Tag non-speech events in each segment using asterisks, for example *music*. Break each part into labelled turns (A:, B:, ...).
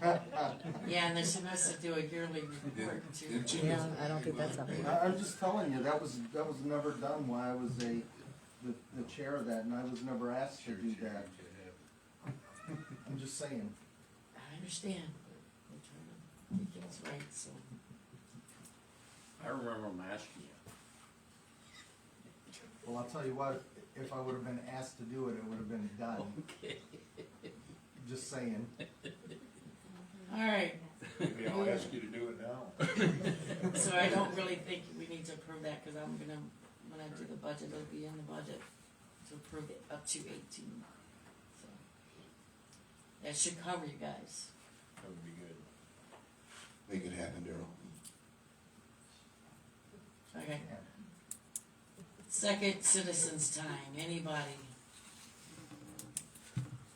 A: *laughs* Yeah, and they're supposed to do a yearly report too.
B: Yeah.
C: Yeah, I don't think that's
B: I-
C: something.
B: I'm just telling you, that was, that was never done while I was a, the, the chair of that, and I was never asked to do that. *laughs* I'm just saying.
A: I understand. We're trying to make things right, so.
D: I remember him asking you.
B: Well, I'll tell you what, if I would've been asked to do it, it would've been done. Just saying.
A: All right,
E: Maybe I'll ask you to do it now.
A: *laughs* so I don't really think we need to approve that, cause I'm gonna, when I do the budget, it'll be in the budget to approve it up to eighteen. So That should cover you guys.
E: That would be good.
F: Make it happen, Daryl.
A: Okay. Second citizens time, anybody?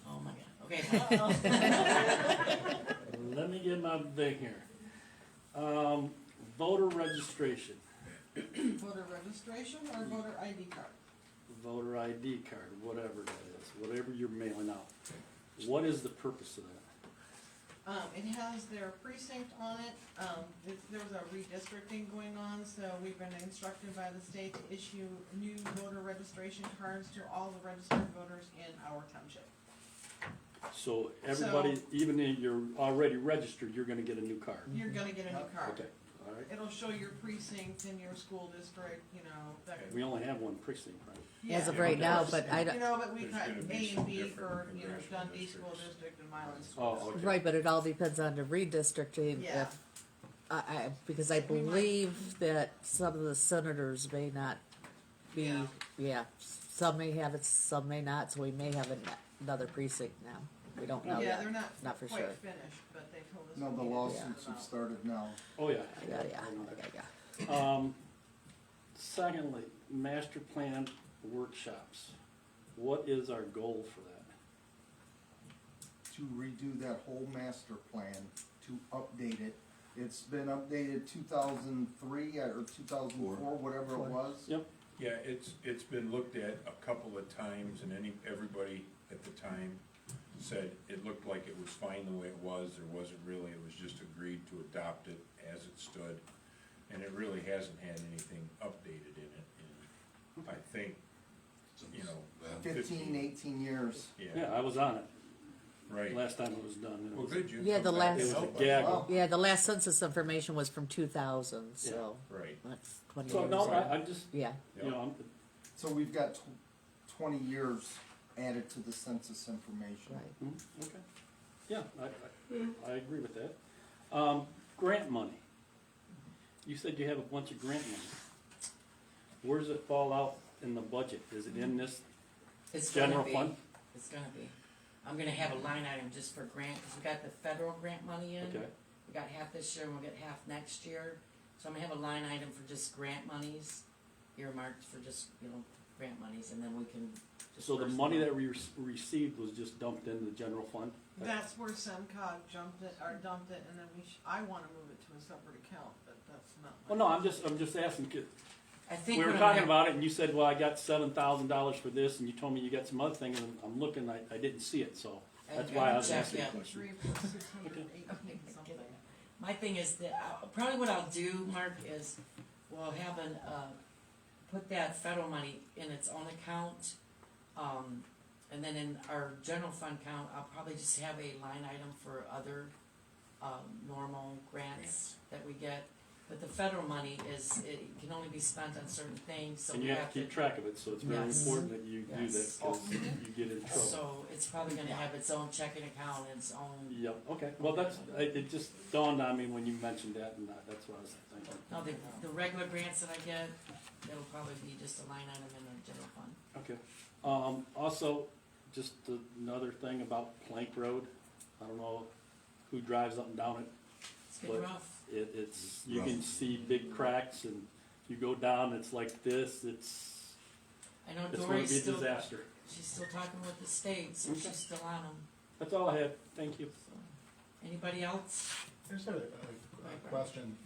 A: Oh my god,
D: *laughs*
A: okay.
D: Let me get my thing here. Um, voter registration,
G: Voter registration or voter ID card?
D: voter ID card, whatever that is, whatever you're mailing out. What is the purpose of that?
G: Um, it has their precinct on it, um, th- there was a redistricting going on, so we've been instructed by the state to issue new voter registration cards to all the registered voters in our township.
D: So everybody, even if you're already registered, you're gonna get a new card.
G: You're gonna get a new
D: Okay,
G: card.
D: all right.
G: It'll show your precinct and your school district, you know, that.
D: We only have one precinct, right?
C: As of
G: Yeah.
C: right now, but I
G: You
C: don't,
G: know, but we
E: There's
G: got
E: gonna be
G: A
E: some
G: and B
E: different
G: for, you know,
E: congressional
G: Dundee School
E: districts.
G: District and Milan School.
D: Oh, okay.
C: *laughs* right, but it all depends on the redistricting.
G: Yeah.
C: If, I, I, because I
G: We might-
C: believe that some of the senators may not be,
A: Yeah.
C: yeah, some may have it, some may not, so we may have an- another precinct now. We don't know
G: Yeah,
C: yet.
G: they're not
C: Not for
G: quite
C: sure.
G: finished, but they told us.
B: No,
G: we
B: the
G: needed to
B: lawsuits
G: sort
B: have
G: them out.
B: started now.
D: Oh, yeah.
C: Yeah, yeah,
D: I know that.
C: yeah, yeah.
D: Um, secondly, master plan workshops. What is our goal for that?
B: to redo that whole master plan, to update it. It's been updated two thousand three uh, or two thousand four, whatever it was.
D: Yep,
E: Yeah, it's, it's been looked at a couple of times and any, everybody at the time said it looked like it was fine the way it was, there wasn't really, it was just agreed to adopt it as it stood. And it really hasn't had anything updated in it in, I think, you know.
B: Fifteen, eighteen years.
D: yeah,
E: Yeah,
D: I was on it
E: right.
D: last time it was done. It
E: Well,
D: was-
E: good, you
C: Yeah,
E: come
C: the
E: back
C: last-
E: and
D: It was a
E: help us.
D: gaggle.
C: Yeah, the last census information was from two thousand, so
E: Right,
C: that's twenty
D: So,
C: years
D: no,
C: ago.
D: I, I just,
C: Yeah,
D: you know, I'm,
B: So we've got tw- twenty years added to the census information.
C: right.
D: mm, okay. Yeah, I, I, I agree with that. Um, grant money. You said you have a bunch of grant money. Where does it fall out in the budget? Is it in this
A: It's gonna
D: general
A: be.
D: fund?
A: It's gonna be. I'm gonna have a line item just for grant, cause we got the federal grant money in.
D: Okay,
A: We got half this year and we'll get half next year. So I'm gonna have a line item for just grant monies, earmarked for just, you know, grant monies, and then we can.
D: so the
A: disperse
D: money
A: them.
D: that we rec- received was just dumped into the general fund?
G: That's where SEMCOG jumped it, or dumped it, and then we, sh- I wanna move it to a separate account, but that's not.
D: Well, no, I'm just, I'm just asking, 'cause
A: I think.
D: we were
A: what I'm
D: talking
A: gonna-
D: about it, and you said, well, I got seven thousand dollars for this, and you told me you got some other thing, and I'm looking, I, I didn't see it, so that's
A: I-
D: why I
A: I'll
D: was
A: check,
D: asking.
A: yeah.
G: Three point six hundred eighteen something.
A: My thing is that, I- probably what I'll do, Mark, is we'll have an, uh, put that federal money in its own account. Um, and then in our general fund account, I'll probably just have a line item for other, um, normal grants that we get. But the federal money is, it can only be spent on certain things, so
D: And
A: we
D: you have to keep track of it, so it's very
A: Yes.
D: important that you do that,
A: Yes.
D: cause you get in trouble.
A: So it's probably gonna have its own checking account, its own,
D: Yep, okay, well, that's, it, it just dawned on me when you mentioned that, and that- that's what I was thinking.
A: no, the, the regular grants that I get, it'll probably be just a line item in the general fund.
D: Okay, um, also, just another thing about Plank Road, I don't know who drives up and down it,
A: It's getting
D: But-
A: rough.
D: It, it's, you can see big cracks and you go down, it's like this, it's,
A: I know
D: it's gonna be a
A: Dory's still,
D: disaster.
A: she's still talking with the state, so
D: Okay.
A: she's still on them,
D: That's all I have, thank you.
A: so. Anybody else?
H: I just had a, a question.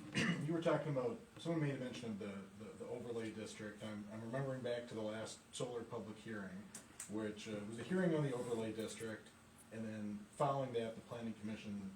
H: You were talking about, someone made a mention of the, the- the overlay district. I'm, I'm remembering back to the last solar public hearing, which uh, was a hearing on the overlay district. And then following that, the planning commission